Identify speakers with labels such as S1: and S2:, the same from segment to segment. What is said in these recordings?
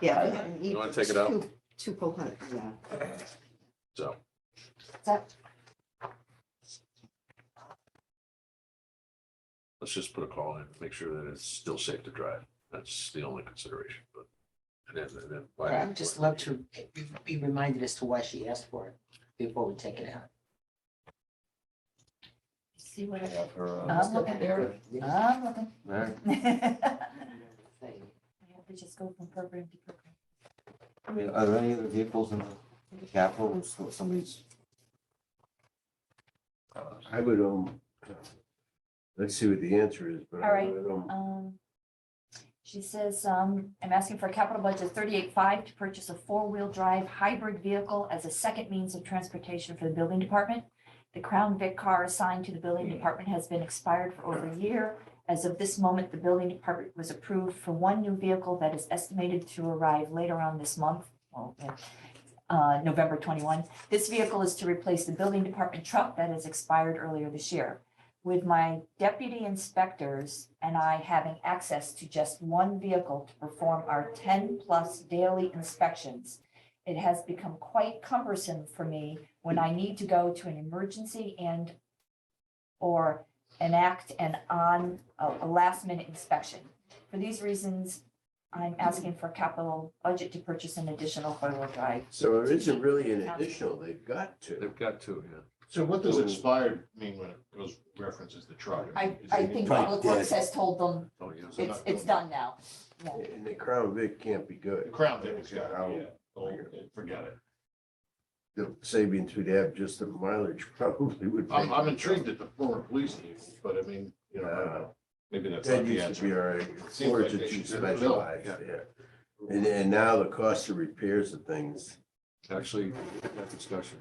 S1: Yeah.
S2: I-
S1: and
S2: You wanna
S1: eat
S2: take it out?
S1: two- Two cohort, yeah.
S2: So,
S1: That-
S2: let's just put a call in, make sure that it's still safe to drive. That's the only consideration, but. And then, and then. why-
S3: I would just love to be reminded as to why she asked for it before we take it out.
S4: See what I, Ah,
S5: Have her, uh,
S4: I'm looking,
S3: Yeah.
S4: I'm looking.
S2: There.
S4: I
S3: Thing.
S4: have to just go from program to program.
S5: I mean, are there any other vehicles in the capital, or so- somebody's? uh,
S6: I would, um, let's see what the answer is, but
S4: All
S6: I
S4: right.
S6: would, um,
S4: Um, she says, um, I'm asking for a capital budget of thirty-eight five to purchase a four-wheel drive hybrid vehicle as a second means of transportation for the building department. The Crown Vic car assigned to the building department has been expired for over a year. As of this moment, the building department was approved for one new vehicle that is estimated to arrive later on this month. Well, yeah, Uh, November twenty-one. This vehicle is to replace the building department truck that has expired earlier this year with my deputy inspectors and I having access to just one vehicle to perform our ten-plus daily inspections, it has become quite cumbersome for me when I need to go to an emergency and or enact an on, a a last-minute inspection. For these reasons, I'm asking for capital budget to purchase an additional four-wheel drive.
S6: so it isn't really an additional, they've got to.
S2: They've got two, yeah.
S7: So what does expired mean when it goes references the truck?
S4: I,
S7: Is
S4: I
S7: it-
S4: think
S6: Right,
S4: Public
S6: yeah.
S4: Works has told them
S2: Oh, yes.
S7: They're
S4: it's,
S7: not
S4: it's
S7: doing
S4: done now.
S6: And the Crown Vic can't be
S7: The
S6: good.
S7: Crown did, it's got,
S6: How-
S7: yeah, Oh, forget it.
S6: The savings we'd have just the mileage probably would.
S7: I'm,
S6: make
S7: I'm
S6: it.
S7: intrigued at the former police chief, but I mean, you know, I don't know. maybe that's not
S6: That
S7: the
S6: used to be
S7: answer.
S6: our,
S7: Seems
S6: or
S7: like they
S6: it's
S7: should
S6: too
S7: fit the bill.
S6: specialized, yeah. And, and now the cost of repairs of things,
S2: Actually, that discussion,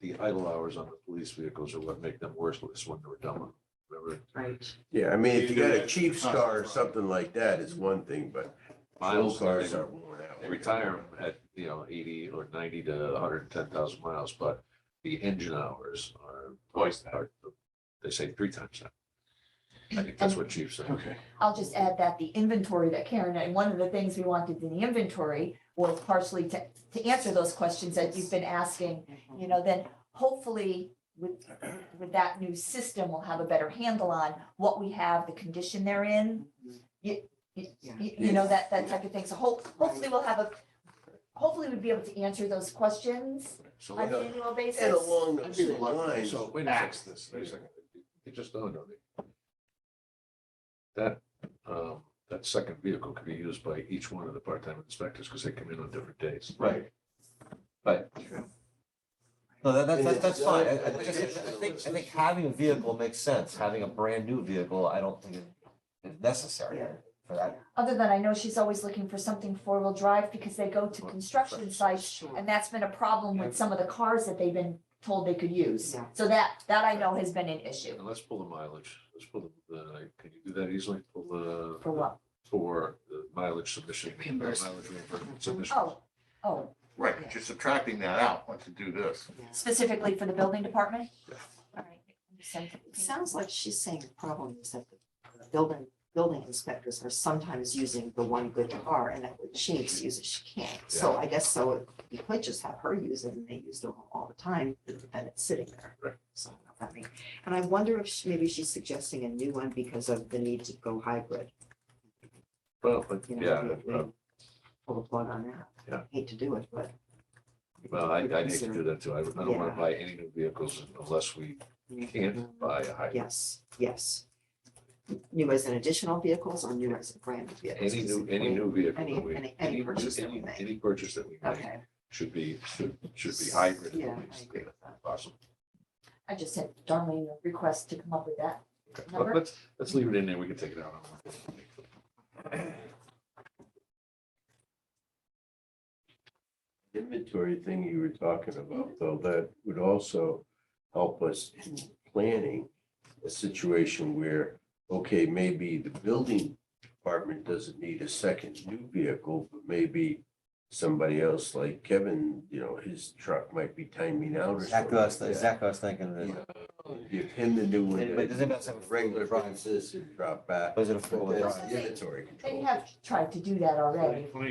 S2: the idle hours on the police vehicles are what make them worthless when they're done. Remember,
S3: Right.
S6: yeah, I mean, if you got
S7: Either
S6: a
S7: that's
S6: Chiefs
S7: the cost
S6: car or
S7: of-
S6: something like that, it's one thing, but those
S2: miles,
S6: cars
S2: they
S6: are worn out.
S2: they retire them at, you know, eighty or ninety to hundred and ten thousand miles, but the engine hours are twice that. or They say three times that. I think that's what Chief said.
S6: Okay.
S4: I'll just add that the inventory that Karen, and one of the things we wanted in the inventory was partially to, to answer those questions that you've been asking. You know, then hopefully with, with that new system, we'll have a better handle on what we have, the condition they're in. You, you, you you know, that, that type of thing. So hope, hopefully we'll have a, hopefully we'll be able to answer those questions
S2: So
S4: on
S2: let-
S4: an annual basis.
S6: And along
S7: I'd
S6: those
S7: be
S6: same
S7: reluctant
S6: lines,
S2: So wait a
S7: Axe
S2: second,
S7: this
S2: wait a
S7: thing.
S2: second. It just dawned on me. That, um, that second vehicle could be used by each one of the part-time inspectors because they come in on different days.
S5: Right. Right. No, that, that- that, that's fine. I, I just, I think, I think having a vehicle makes sense. Having a brand new vehicle, I don't think is necessary for that.
S4: Other than I know she's always looking for something four-wheel drive because they go to construction sites And that's been a problem with some of the cars that they've been told they could use.
S3: Yeah.
S4: So that, that I know has been an issue.
S2: And let's pull the mileage. Let's pull the, the- can you do that easily? Pull the.
S4: For what?
S2: For the mileage submission. or mileage
S3: Reimbursement.
S2: reimbursement submission.
S4: Oh, oh,
S7: Right, but you're subtracting that out once you do this.
S4: specifically for the building department? All right. Send-
S1: It sounds like she's saying the problem is that the building, building inspectors are sometimes using the one good car and that when she needs to use it, she can't. So I guess so, you could just have her use it and they use it all the time, and it's sitting there.
S2: Right.
S1: So, I mean, and I wonder if she- maybe she's suggesting a new one because of the need to go hybrid.
S2: Well, but
S1: you know,
S2: yeah,
S1: maybe
S2: uh,
S1: Pull the plug on that.
S2: Yeah.
S1: Hate to do it, but.
S2: well, I, I hate to do that too. I would- I don't want
S1: Yeah.
S2: to buy any new vehicles unless we can't buy a hybrid.
S1: Yes, yes. New as an additional vehicles or new as a brand new vehicles?
S2: Any new, any new vehicle
S1: Any-
S2: that we,
S1: any- any
S2: any,
S1: purchase that we
S2: any,
S1: make.
S2: any purchase that we make
S1: Okay,
S2: should be, should, should be hybrid. at
S1: yeah, I
S2: least,
S1: agree
S2: if
S1: with that.
S2: Possible.
S4: I just sent Darlene a request to come up with that.
S2: Okay.
S4: Number?
S2: But Let's, let's leave it in there. We can take it out.
S6: inventory thing you were talking about, though, that would also help us in planning a situation where, okay, maybe the building department doesn't need a second new vehicle, but maybe somebody else like Kevin, you know, his truck might be timing out or something.
S5: Exactly, what I was-
S6: like that.
S5: exactly, what I was thinking.
S6: You
S5: that-
S6: know, Give him the new one.
S5: But doesn't that have a
S6: Regular
S5: four-wheel drive?
S6: basis and drop back.
S5: Was it a four-wheel
S6: That's
S5: drive?
S6: the Inventory
S4: They
S6: control.
S4: have tried to do that already.